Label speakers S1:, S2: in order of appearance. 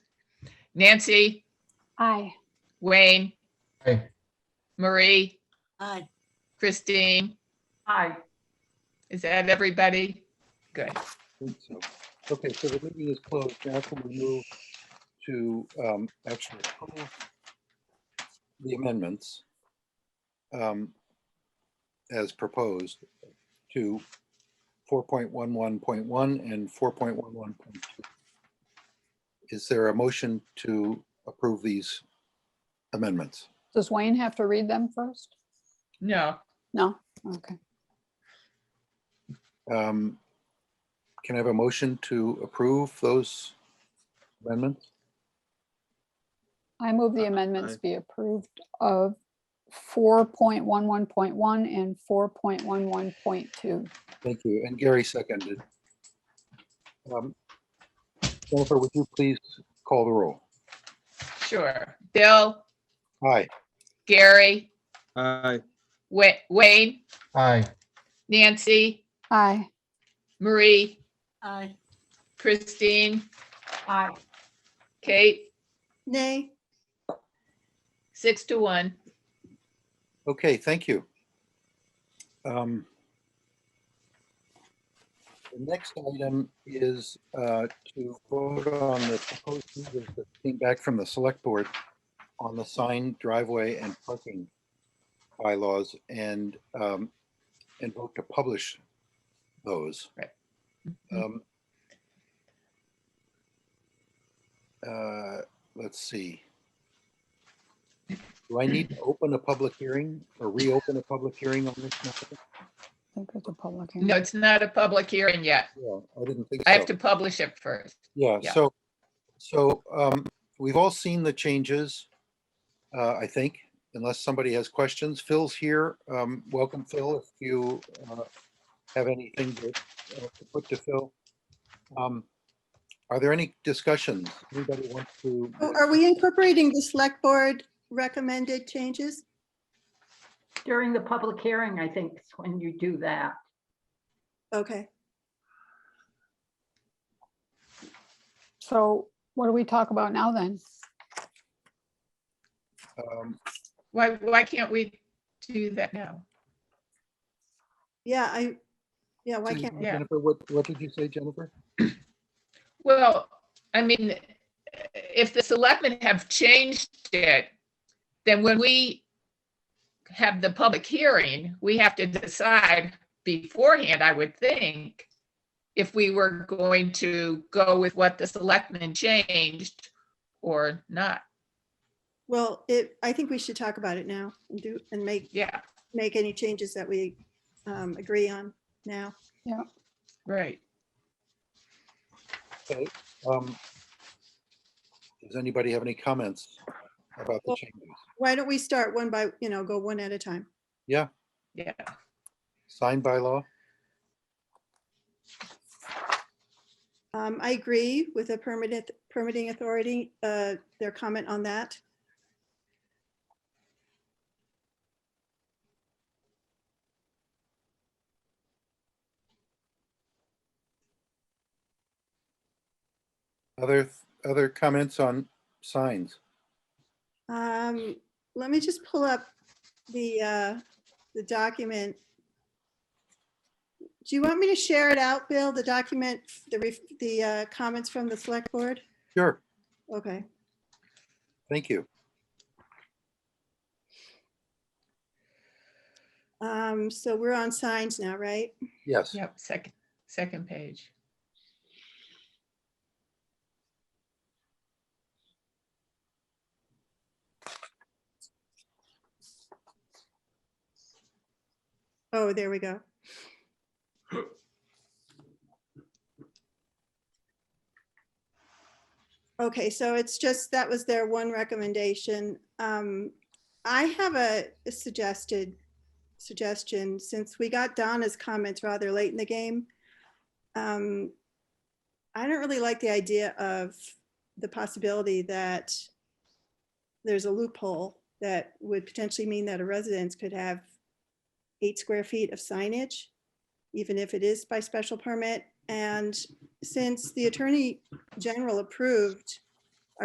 S1: Nancy,
S2: Aye.
S1: Wayne,
S3: Aye.
S1: Marie,
S4: Aye.
S1: Christine.
S2: Aye.
S1: Is that everybody? Good.
S5: think so. Okay, so the meeting is closed. Now can we move to um, actually approve the amendments um, as proposed to 4.11.1 and 4.11.2? Is there a motion to approve these amendments?
S2: Does Wayne have to read them first?
S1: No,
S2: No? Okay.
S5: Um, Can I have a motion to approve those amendments?
S2: I move the amendments be approved of 4.11.1 and 4.11.2.
S5: Thank you. And Gary seconded. Um, Jennifer, would you please call the roll?
S1: sure. Bill,
S5: Aye.
S1: Gary,
S6: Aye.
S1: Wa- Wayne,
S3: Aye.
S1: Nancy,
S2: Aye.
S1: Marie,
S4: Aye.
S1: Christine,
S2: Aye.
S1: Kate,
S4: Nay.
S1: six to one.
S5: Okay, thank you. Um, The next item is uh, to vote on the proposed changes that came back from the select board on the sign driveway and parking bylaws and, um, and vote to publish those.
S1: Right.
S5: Um, uh, Let's see. Do I need to open a public hearing or reopen a public hearing on this? matter?
S2: I think it's a public hearing.
S1: No, it's not a public hearing yet.
S5: Yeah, I didn't think so.
S1: I have to publish it first.
S5: Yeah,
S1: Yeah.
S5: so, so um, we've all seen the changes, uh, I think, unless somebody has questions. Phil's here. Um, Welcome, Phil, if you uh, have anything to uh, to put to Phil. Um, Are there any discussions? Anybody want to?
S4: Oh, Are we incorporating the select board recommended changes?
S7: During the public hearing, I think is when you do that.
S4: Okay,
S2: So what do we talk about now then?
S5: um,
S1: Why, why can't we do that now?
S4: yeah, I, yeah, why
S5: Hmm.
S4: can't, we?
S1: Yeah.
S5: Jennifer, what, what did you say, Jennifer?
S1: Well, I mean, if the selectmen have changed it, then when we have the public hearing, we have to decide beforehand, I would think, if we were going to go with what the selectmen changed or not.
S4: well, it, I think we should talk about it now and do, and make,
S1: Yeah,
S4: make any changes that we um, agree on now.
S1: right.
S5: Um, Does anybody have any comments about the
S4: Well-
S5: changes?
S4: Why don't we start one by, you know, go one at a time?
S1: Yeah,
S5: Signed by law?
S4: Um, I agree with the permitted, permitting authority, uh, their comment on that.
S5: Other, other comments on signs?
S4: Um, let me just pull up the, uh, the document. Do you want me to share it out, Bill, the document, the, ref- the, uh, comments from the select board?
S5: Sure,
S4: Okay,
S5: thank you.
S4: um, so we're on signs now, right?
S5: Yes,
S1: yep, second, second page.
S4: Oh, there we go. Okay, so it's just, that was their one recommendation. Um, I have a a suggested suggestion, since we got Donna's comments rather late in the game. Um, I don't really like the idea of the possibility that there's a loophole that would potentially mean that a residence could have eight square feet of signage, even if it is by special permit. And since the Attorney General approved